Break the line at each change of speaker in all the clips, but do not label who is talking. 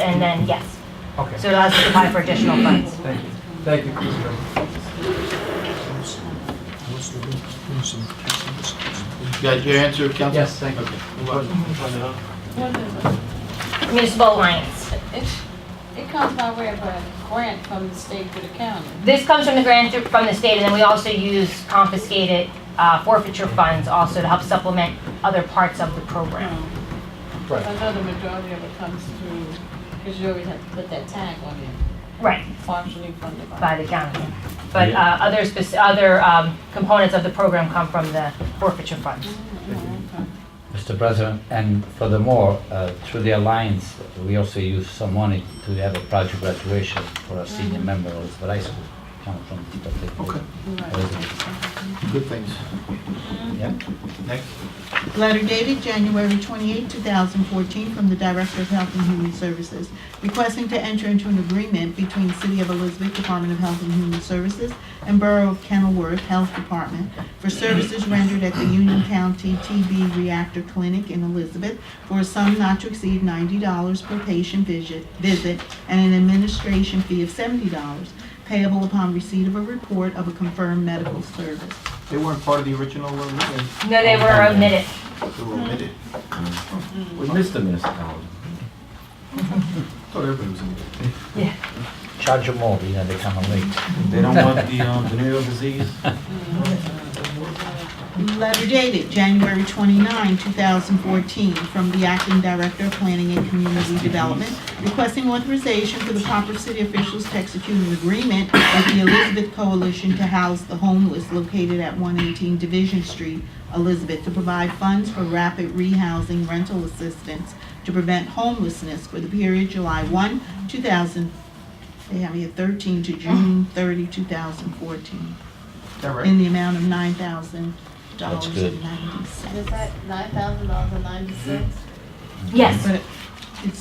and then, yes.
Okay,
So it allows us to apply for additional funds.
thank you. Thank you, Mr. Chairman.
You Got your answer, Council?
Yes, thank you.
Municipal Alliance.
It, it comes by way of a grant from the state to the county.
This comes from the grant through- from the state, and then we also use confiscated uh, forfeiture funds also to help supplement other parts of the program.
I
Right.
know the majority of it comes through, because you always have to put that tag on it,
Right.
partially funded by.
By the county. But uh, other spec- other um, components of the program come from the forfeiture funds.
Mr. President, and furthermore, uh, through the alliance, we also use some money to have a project graduation for a senior member of the high school, come from this particular. Okay.
Good things.
Yeah.
Next.
Letter dated January 28, 2014, from the Director of Health and Human Services, requesting to enter into an agreement between City of Elizabeth Department of Health and Human Services and Borough of Kenilworth Health Department for services rendered at the Union County TB Reactor Clinic in Elizabeth for a sum not to exceed $90 per patient visit visit and an administration fee of $70 payable upon receipt of a report of a confirmed medical service.
They weren't part of the original one, we-
No, they were omitted.
they were omitted.
We missed the municipality.
Thought everybody was omitted.
Charge them all, you know, they come and late.
They don't want the um, venereal disease.
Letter dated January 29, 2014, from the Acting Director of Planning and Community Development requesting authorization for the proper city officials to execute an agreement with the Elizabeth Coalition to house the homeless located at 118 Division Street, Elizabeth, to provide funds for rapid rehousing rental assistance to prevent homelessness for the period July 1, 2000, they have me at 13 to June 30, 2014
Is that
in
right?
the amount of nine thousand dollars
That's good.
and ninety
Is
cents.
that nine thousand dollars and ninety-six?
Yes,
But it's,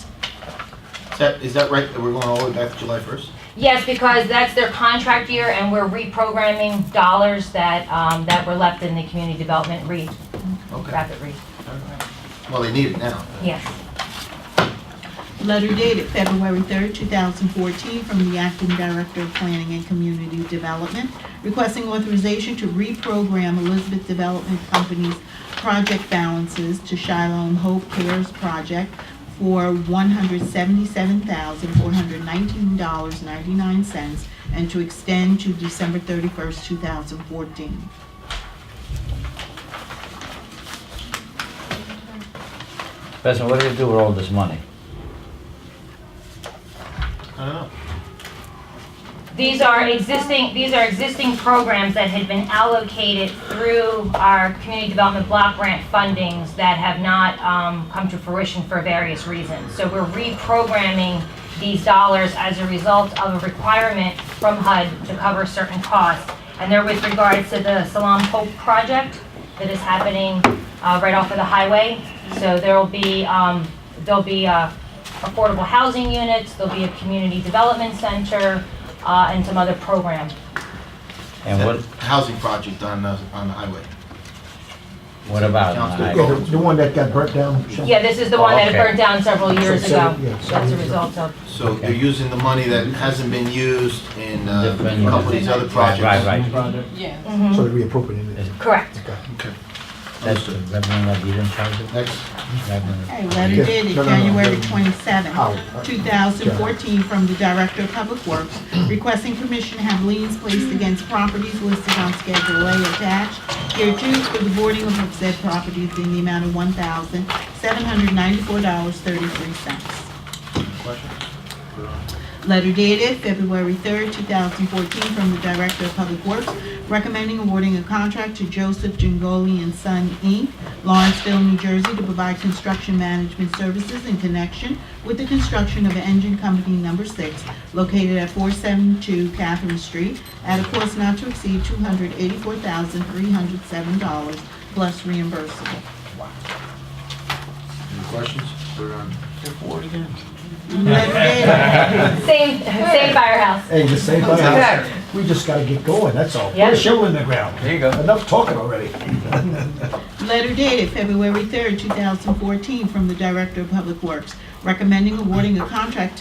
Is that, is that right, that we're going all the way back to July 1st?
yes, because that's their contract year, and we're reprogramming dollars that, um, that were left in the community development re,
Okay.
rapid re,
Well, they need it now.
yes.
letter dated February third, two thousand fourteen, from the acting director of planning and community development, requesting authorization to reprogram Elizabeth Development Company's project balances to Shiloh Hope Cares Project for one hundred seventy-seven thousand, four hundred nineteen dollars, ninety-nine cents, and to extend to December thirty-first, two thousand fourteen.
President, what do you do with all this money?
I don't know.
These are existing, these are existing programs that had been allocated through our community development block grant fundings that have not um, come to fruition for various reasons. So we're reprogramming these dollars as a result of a requirement from HUD to cover certain costs. And they're with regards to the Salam Hope project that is happening uh, right off of the highway. So there'll be, um, there'll be uh, affordable housing units, there'll be a community development center, uh, and some other program.
And what,
That Housing project on, the- on the highway.
what about?
Sounds
I-
good.
Yeah, the, the one that got burnt down. Sean?
Yeah, this is the one that
Okay.
burned down several years
So- so-
ago.
yeah, so-
That's a result of,
So they're using the money that hasn't been used in uh,
Different-
a couple of these other
Right,
projects.
right, right.
Yes.
So that we appropriated it.
correct.
That's the revenue that you didn't charge it?
Next.
Revenue.
Okay, letter
Yeah,
dated
no, no, no,
January
no. How?
27, 2014, from the Director of Public Works requesting permission to have liens placed against properties listed on Schedule A attached hereto for the boarding of said properties in the amount of $1,794.33.
Questions?
Letter dated February 3rd, 2014, from the Director of Public Works recommending awarding a contract to Joseph Jingoli and Son, Inc., Lawrenceville, New Jersey, to provide construction management services in connection with the construction of Engine Company Number 6, located at 472 Catherine Street, at a cost not to exceed $284,307, plus reimbursable.
Any questions? We're on.
Letter dated
Same, same firehouse.
Hey, the same thing, we just gotta get going, that's all. Put
Yeah.
a shovel in the ground. There you go. Enough talking already.
Letter dated February 3rd, 2014, from the Director of Public Works, recommending awarding a contract